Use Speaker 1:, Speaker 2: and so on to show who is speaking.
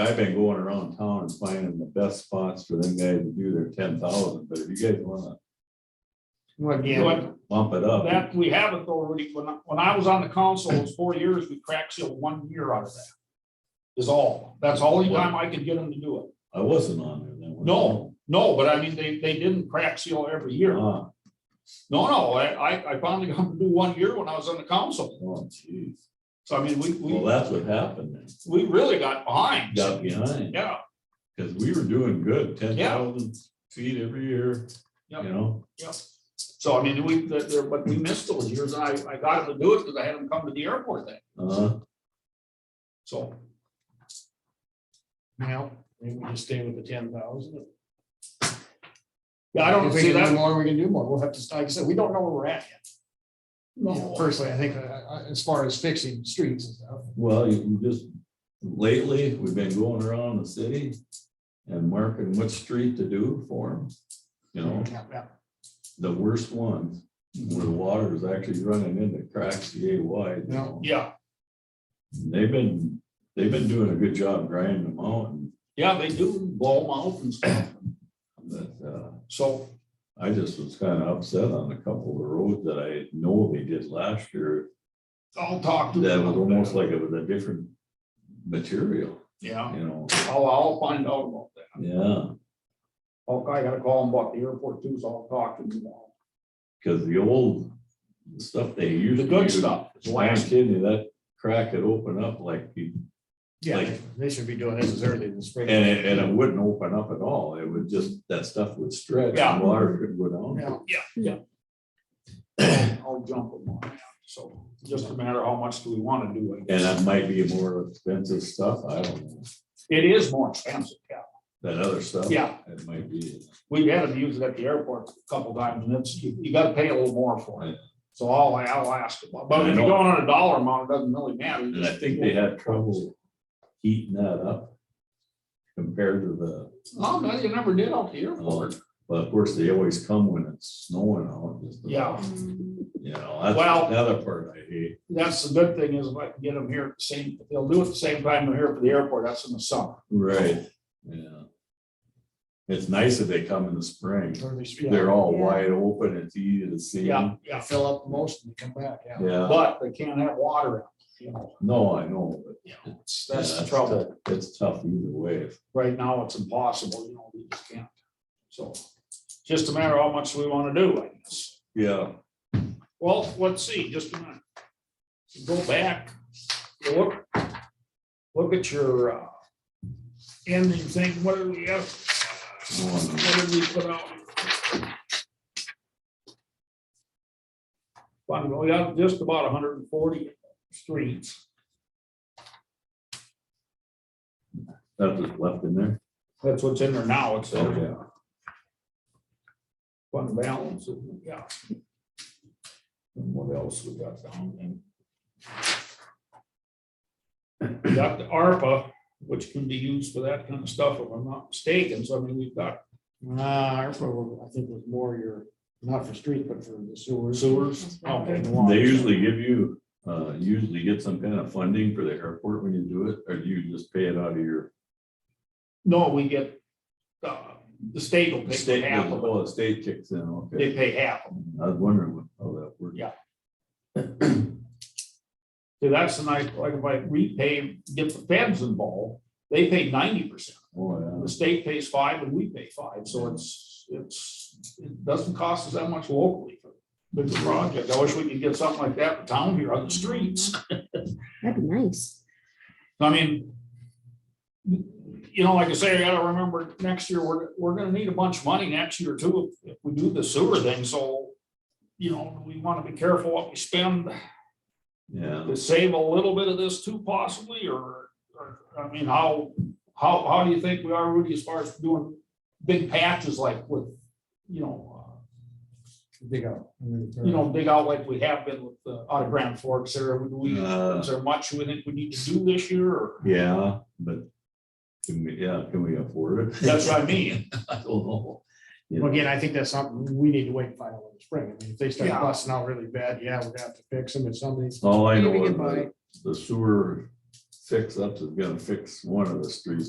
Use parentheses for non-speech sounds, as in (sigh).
Speaker 1: I've been going around town and finding the best spots for them guys to do their ten thousand, but if you guys wanna
Speaker 2: Well, again,
Speaker 3: But
Speaker 1: bump it up,
Speaker 3: that, we have authority, when, I- when I was on the council, it was four years, we crack sealed one year out of that. Is all, that's all the time I could get them to do it.
Speaker 1: I wasn't on there then. was I?
Speaker 3: No, no, but I mean, they, they didn't crack seal every year. No,
Speaker 1: Ah,
Speaker 3: no, I, I, I finally got them to do one year when I was on the council.
Speaker 1: Oh, jeez.
Speaker 3: So I mean, we,
Speaker 1: Well,
Speaker 3: we,
Speaker 1: that's what happened then.
Speaker 3: we really got behind.
Speaker 1: Got behind,
Speaker 3: Yeah,
Speaker 1: cause we were doing good, ten thousand feet every year, you
Speaker 3: Yep.
Speaker 1: know?
Speaker 3: yeah. So I mean, we, there- there, but we missed those years, and I, I got them to do it because I had them come to the airport then,
Speaker 1: Uh,
Speaker 3: so.
Speaker 4: Now, maybe we just stay with the ten thousand.
Speaker 3: Yeah, I don't
Speaker 4: If we
Speaker 3: see
Speaker 4: can do
Speaker 3: that.
Speaker 4: more, we can do more. We'll have to, like I said, we don't know where we're at yet. You know,
Speaker 3: No.
Speaker 4: Personally, I think, uh, uh, as far as fixing streets and stuff,
Speaker 1: well, you can just, lately, we've been going around the city and marking what street to do for them. You know,
Speaker 4: yeah, yeah.
Speaker 1: the worst ones, where the water is actually running into cracks yay wide. you know?
Speaker 3: Yeah,
Speaker 1: They've been, they've been doing a good job grinding them out, and,
Speaker 3: yeah, they do blow them out and stuff,
Speaker 1: but, uh,
Speaker 3: so,
Speaker 1: I just was kind of upset on a couple of the roads that I know they did last year.
Speaker 3: I'll talk to
Speaker 1: That
Speaker 3: them.
Speaker 1: was almost like it was a different material,
Speaker 3: Yeah,
Speaker 1: you know,
Speaker 3: I'll, I'll find out about that.
Speaker 1: yeah,
Speaker 3: I'll- Oh, I gotta call them about the airport too, so I'll talk to them. about
Speaker 1: because the old stuff they used.
Speaker 3: The
Speaker 1: to
Speaker 3: good
Speaker 1: use,
Speaker 3: stuff, the
Speaker 1: I'm
Speaker 3: last,
Speaker 1: kidding you, that crack could open up like, you-
Speaker 4: Yeah,
Speaker 1: Like-
Speaker 4: they should be doing this as early in the spring.
Speaker 1: and it, and it wouldn't open up at all, it would just, that stuff would stretch.
Speaker 3: Yeah.
Speaker 1: and Water could go down.
Speaker 4: Yeah.
Speaker 3: I'll jump them on that, so just a matter of how much do we wanna do. I
Speaker 1: And
Speaker 3: guess.
Speaker 1: that might be more expensive stuff, I don't know,
Speaker 3: It is more expensive, yeah.
Speaker 1: that other stuff.
Speaker 3: Yeah.
Speaker 1: It might be,
Speaker 3: We've had to use it at the airport a couple times and it's, you, you gotta pay a little more for
Speaker 1: Yeah.
Speaker 3: it. So I'll, I'll ask them, but if
Speaker 1: I
Speaker 3: you're
Speaker 1: know.
Speaker 3: going on a dollar amount, it doesn't really matter.
Speaker 1: and I think they had trouble heating that up compared to the, uh,
Speaker 3: Oh, no, you never did out the airport.
Speaker 1: but of course, they always come when it's snowing out. just about,
Speaker 3: Yeah.
Speaker 1: You know, that's
Speaker 3: Well-
Speaker 1: another part I hate,
Speaker 3: That's the good thing is if I can get them here at the same, if they'll do it the same time they're here for the airport, that's in the summer.
Speaker 1: right, yeah. It's nice that they come in the spring,
Speaker 4: Early spring.
Speaker 1: they're all
Speaker 5: Yeah.
Speaker 1: wide open, it's easy to see.
Speaker 3: Yeah,
Speaker 4: Yeah,
Speaker 3: yeah,
Speaker 4: Fill up most and come back, yeah.
Speaker 1: Yeah,
Speaker 3: but they can't have water out, you know,
Speaker 1: no, I know, but.
Speaker 3: it's- that's
Speaker 1: yeah,
Speaker 3: the
Speaker 1: it's
Speaker 3: trouble.
Speaker 1: tough- It's tough either way,
Speaker 3: Right now, it's impossible, you know, we just can't. So, just a matter of how much we want to do, I guess.
Speaker 1: yeah.
Speaker 3: Well, let's see, just a minute. Go back, look, look at your uh, ending thing, what do we have? What did we put out? Fun, we got just about hundred and forty streets.
Speaker 1: That's just left in there.
Speaker 3: That's what's in there now, it's
Speaker 1: Oh,
Speaker 3: a
Speaker 1: yeah.
Speaker 3: fund balance, yeah. And what else we got down there? We got the ARPA, which can be used for that kind of stuff, if I'm not mistaken, so I mean, we've got
Speaker 4: Nah, our program, I think was more your, not for street, but for the sewers.
Speaker 3: sewers. okay, the water.
Speaker 1: They usually give you, uh, you usually get some kind of funding for the airport when you do it, or do you just pay it out of your?
Speaker 3: No, we get, uh, the state will pay
Speaker 1: state?
Speaker 3: half of it,
Speaker 1: Oh, the state kicks in,
Speaker 3: they
Speaker 1: okay.
Speaker 3: pay half of it.
Speaker 1: I was wondering what- how that works.
Speaker 3: Yeah. See, that's the nice, like if I repay, get the feds involved, they pay ninety percent.
Speaker 1: Oh,
Speaker 3: The state pays five and we pay five, so it's, it's, it doesn't cost us that much locally. for Big project. I wish we could get something like that in town here on the streets.
Speaker 5: That'd be nice.
Speaker 3: I mean, you know, like I say, I gotta remember, next year, we're, we're gonna need a bunch of money next year too, if we do the sewer thing, so, you know, we wanna be careful what we spend.
Speaker 1: yeah. Yeah,
Speaker 3: to save a little bit of this too possibly, or, or, I mean, how, how, how do you think we are, Rudy, as far as doing big patches like with, you know, uh,
Speaker 4: Dig out.
Speaker 3: you know, big out like we have been with the, out of Grand Forks there, would we,
Speaker 1: Uh,
Speaker 3: is there much we think we need to do this year, or,
Speaker 1: yeah, but can we, yeah, can we afford it?
Speaker 3: that's what I mean.
Speaker 1: (laughs) I don't know. You
Speaker 4: Well,
Speaker 1: know,
Speaker 4: Again, I think that's something we need to wait and find out in the spring. I mean, if they start
Speaker 3: Yeah.
Speaker 4: busting out really bad, yeah, we're gonna have to fix them if somebody's.
Speaker 1: All I
Speaker 4: Maybe
Speaker 1: know
Speaker 4: we
Speaker 1: is
Speaker 4: can buy-
Speaker 1: the- the sewer fix ups is gonna fix one of the streets